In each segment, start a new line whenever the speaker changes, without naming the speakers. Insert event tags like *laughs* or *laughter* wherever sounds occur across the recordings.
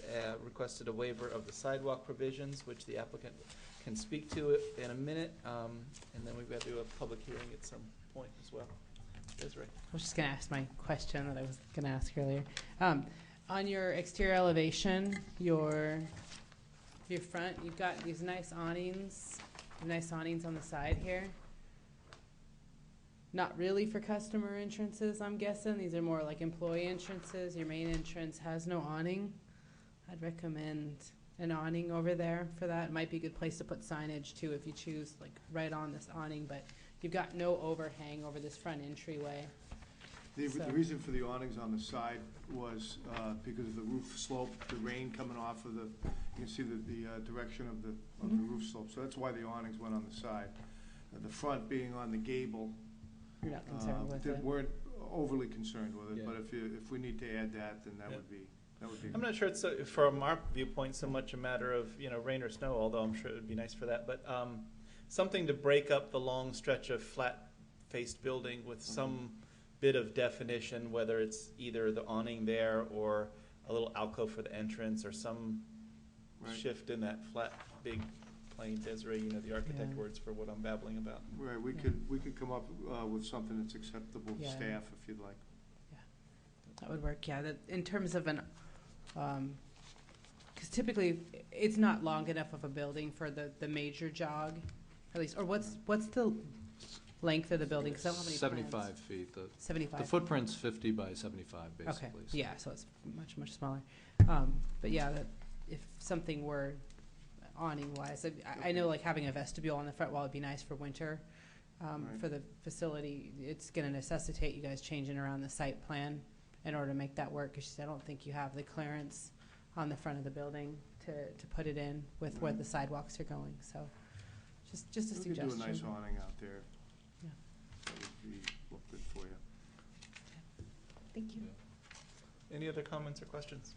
uh, requested a waiver of the sidewalk provisions, which the applicant can speak to in a minute, um, and then we've got to do a public hearing at some point as well. Desiree?
I was just going to ask my question that I was going to ask earlier. Um, on your exterior elevation, your your front, you've got these nice awnings, nice awnings on the side here. Not really for customer entrances, I'm guessing. These are more like employee entrances. Your main entrance has no awning. I'd recommend an awning over there for that. Might be a good place to put signage too if you choose, like right on this awning, but you've got no overhang over this front entryway.
The, the
So-
reason for the awnings on the side was, uh, because of the roof slope, the rain coming off of the, you can see the, the, uh, direction of the, of the
Mhm.
roof slope, so that's why the awnings went on the side. Uh, The front being on the gable,
You're not
uh,
concerned with
that
it.
weren't overly concerned with it,
Yeah.
but if you, if we need to add that, then that
Yeah.
would be, that would be.
I'm not sure it's, uh, from our viewpoint, so much a matter of, you know, rain or snow, although I'm sure it would be nice for that, but um, something to break up the long stretch of flat-faced building with some bit of definition, whether it's either the awning there or a little alcove for the entrance or some
Right.
shift in that flat, big plane, Desiree, you know the architect
Yeah.
words for what I'm babbling about.
Right, we could, we could come up, uh, with something that's acceptable to
Yeah.
staff if you'd like.
That would work, yeah, that, in terms of an, um 'cause cause typically, it's not long enough of a building for the, the major jog, at least, or what's, what's the length of the building, cause I don't have any plans.
Seventy-five feet. The, the
Seventy-five?
footprint's fifty by seventy-five,
Okay,
basically. so-
yeah, so it's much, much smaller, um, but yeah, that, if something were awning wise, I, I know like having a vestibule on the front wall would be nice for winter, um,
Right.
for the facility, it's gonna necessitate you guys changing around the site plan in order to make that work, cause she said, I don't think you have the clearance on the front of the building to, to put it in with where
Right.
the sidewalks are going, so, just, just a
We could
suggestion.
do a nice awning out there.
Yeah.
That would be, look good for you.
Thank you.
Yeah.
Any other comments or questions?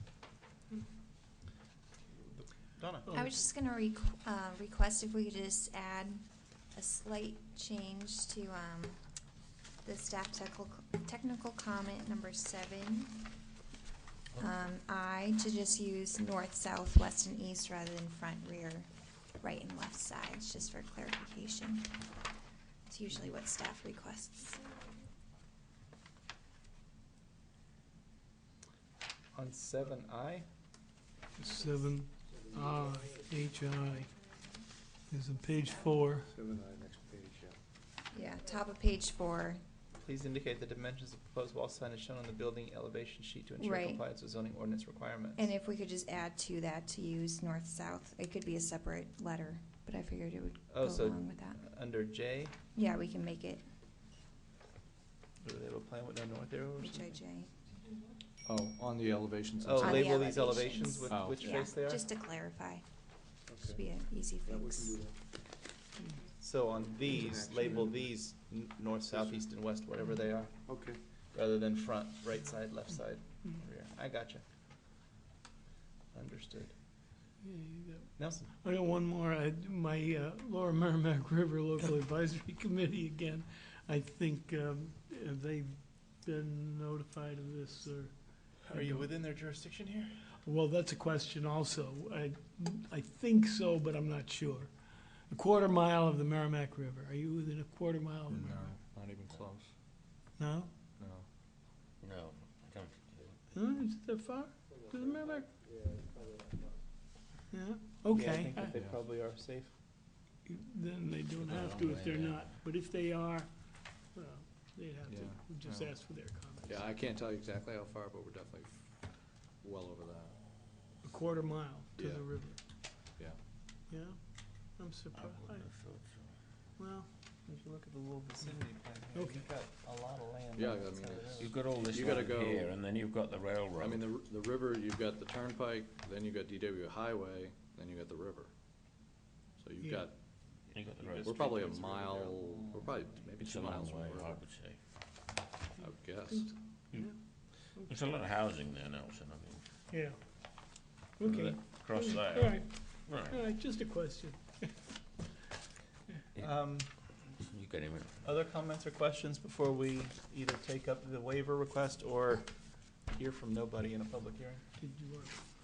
Donna?
I was just gonna requ- uh, request if we could just add a slight change to, um, the staff technical, technical comment number seven. Um, I, to just use north, south, west, and east rather than front, rear, right, and left sides, just for clarification. It's usually what staff requests.
On seven I,
Seven I, H I, is on page four.
Seven I, next page, yeah.
Yeah, top of page four,
please indicate the dimensions of proposed wall sign as shown on the building elevation sheet to ensure
Right.
compliance with zoning ordinance requirements.
and if we could just add to that to use north, south, it could be a separate letter, but I figured it would go
Oh, so
along with that.
under J,
Yeah, we can make it
do they have a plan with no north arrow or something?
HIJ.
Oh, on the elevations.
Oh,
On the
inside.
label these elevations
elevations.
with
Oh.
which
Yeah,
face they are?
just to clarify. Should
Okay.
be an easy
Yeah, we can
fix.
do that.
So on these,
Interaction.
label these n- north, south, east, and west, whatever they are,
Okay.
rather than front, right side, left side, rear. I gotcha. Understood.
Yeah, you got-
Nelson?
I got one more. I, my uh, Lower Merrimack *laughs*
*laughs*
River Local Advisory Committee again. I think, um, have they been notified of this or?
Are you within their jurisdiction here?
Well, that's a question also. I, I think so, but I'm not sure. A quarter mile of the Merrimack River. Are you within a quarter mile of the
No,
Merrimack?
not even close.
No?
No.
No, I don't.
Huh? Is it that far? To the Merrimack? Yeah, okay.
I think they
Yeah.
probably are safe.
Then they don't
Oh,
They're
have
on
to
the
if
way
they're
down.
not, but if they are, well, they'd have to,
Yeah,
we just
yeah.
ask for their comments.
Yeah, I can't tell you exactly how far, but we're definitely f- well over that.
A quarter mile to
Yeah.
the river.
Yeah.
Yeah, I'm surprised. Well,
If you look at the little vicinity plan
here, Okay. you've
got a lot of land.
Yeah, on I that mean, side of the it's-
You've got all this
You gotta
land
go-
here, and then you've got the railroad.
I mean, the, r- the river, you've got the turnpike, then you've got DW Highway, then you've got the river. So you've
Yeah.
got,
You've got the
We're
road.
we're probably a mile, we're probably maybe
It's
two
a long
miles from
way,
the
I
river,
would say.
I would guess.
it's-
Hmm.
yeah,
There's a lot of housing there, Nelson, I mean,
yeah.
Look at
Okay.
it. across
All
there.
right,
Right,
all right, just a question.
Um,
you get him in.
other comments or questions before we either take up the waiver request or hear from nobody in a public hearing?
Did you want to